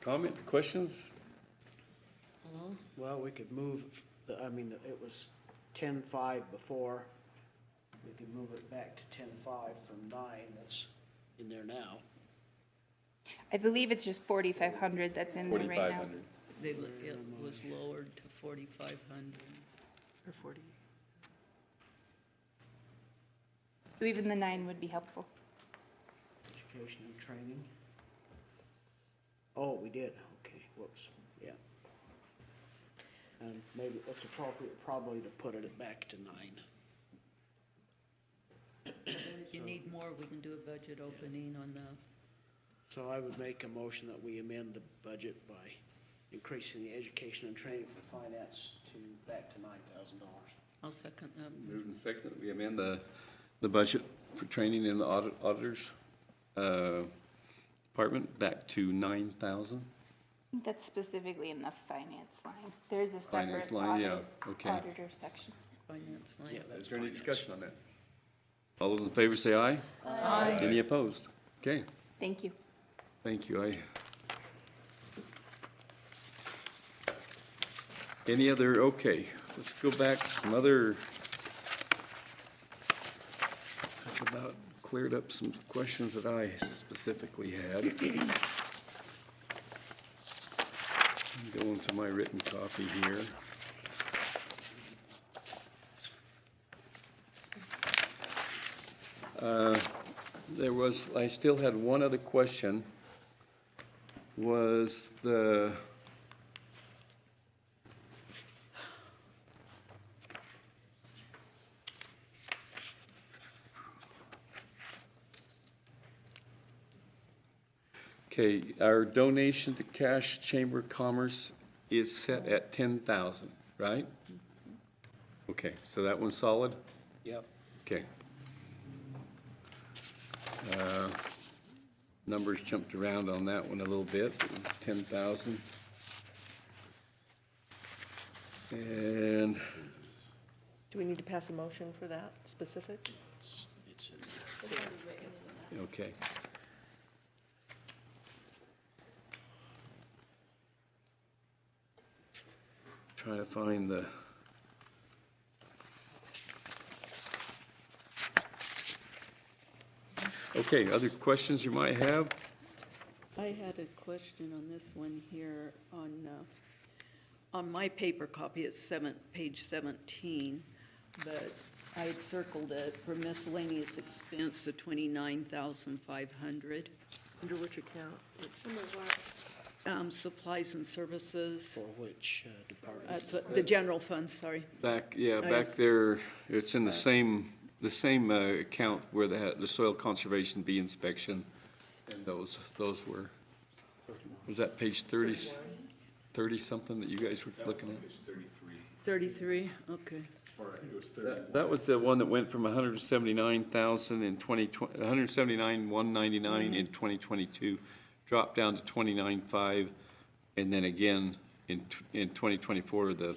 Comments, questions? Well, we could move, the- I mean, it was ten-five before. We could move it back to ten-five from nine that's in there now. I believe it's just 4,500 that's in there right Forty-five now. hundred. They, l- it was lowered to forty-five hundred. Or forty. So even the nine would be helpful. Education and training. Oh, we did, okay, whoops, yeah. And maybe it's appropriate probably to put it back to nine. If you need more, we can do a budget opening on the, So I would make a motion that we amend the budget by increasing the education and training for finance to back to nine thousand dollars. I'll second um, that. Moved and seconded, we amend the, the budget for training in the audit, auditors, uh, department back to nine thousand. That's specifically in the finance line. There's a Finance separate line, yeah, audit- okay. auditor section. finance line. Is there any discussion on that? All those in favor say aye. Aye. Any opposed? Okay, Thank you. thank you, I. Any other, okay, let's go back to some other. That's about cleared up some questions that I specifically had. Going to my written copy here. Uh, There was, I still had one other question, was the... Okay, our donation to Cash Chamber of Commerce is set at 10,000, right? Okay, so that one's solid? Yep. Okay. Uh, Numbers jumped around on that one a little bit, ten thousand. And Do we need to pass a motion for that specific? It's in there. Okay. Trying to find the. Okay, other questions you might have? I had a question on this one here on, uh, on my paper copy, it's seven, page seventeen, but I had circled it for miscellaneous expense of twenty-nine thousand five hundred. Under which account? Um, supplies and services, For which uh, department? that's what, the general fund, sorry. Back, yeah, I back just- there, it's in the same, the same uh, account where the, the soil conservation bee inspection, and those, those were, was that page 30, 30 something that you guys were looking at? Thirty-three, okay. That- That was the one that went from 179,000 in 2020, 179,199 in 2022, dropped down to 29,5, and then again, in, tw- in 2024, the,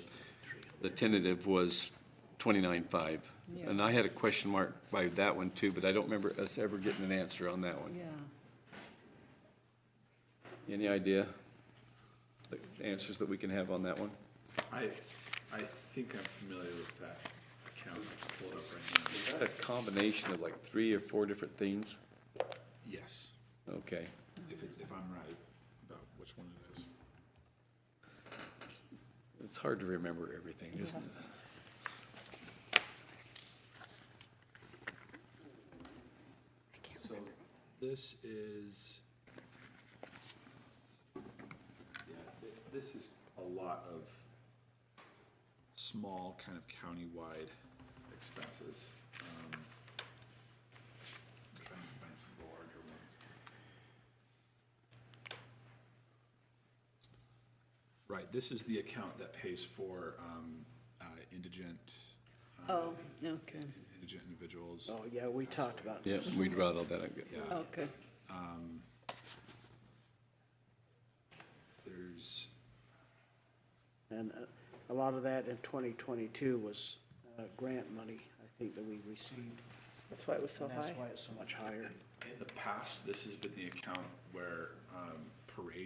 the tentative was 29,5. Yeah. And I had a question mark by that one too, but I don't remember us ever getting an answer on that one. Yeah, Any idea? The Answers that we can have on that one? I, I think I'm familiar with that account, I can pull it up right now. Is that a combination of like three or four different things? Yes, Okay. if it's, if I'm right about which one it is. It's hard to remember everything, isn't it? So this is, yeah, th- this is a lot of small kind of countywide expenses. Um, I'm trying to find some of the larger ones. Right, this is the account that pays for um, uh, indigent, uh, oh, okay, indigent individuals. Oh, yeah, we talked about Yeah, we brought all that up. Yeah. okay. There's, And uh, a lot of that in 2022 was uh, grant money, I think, that we received. That's why it was so And high. that's why it's so much higher. In the past, this has been the account where um, parade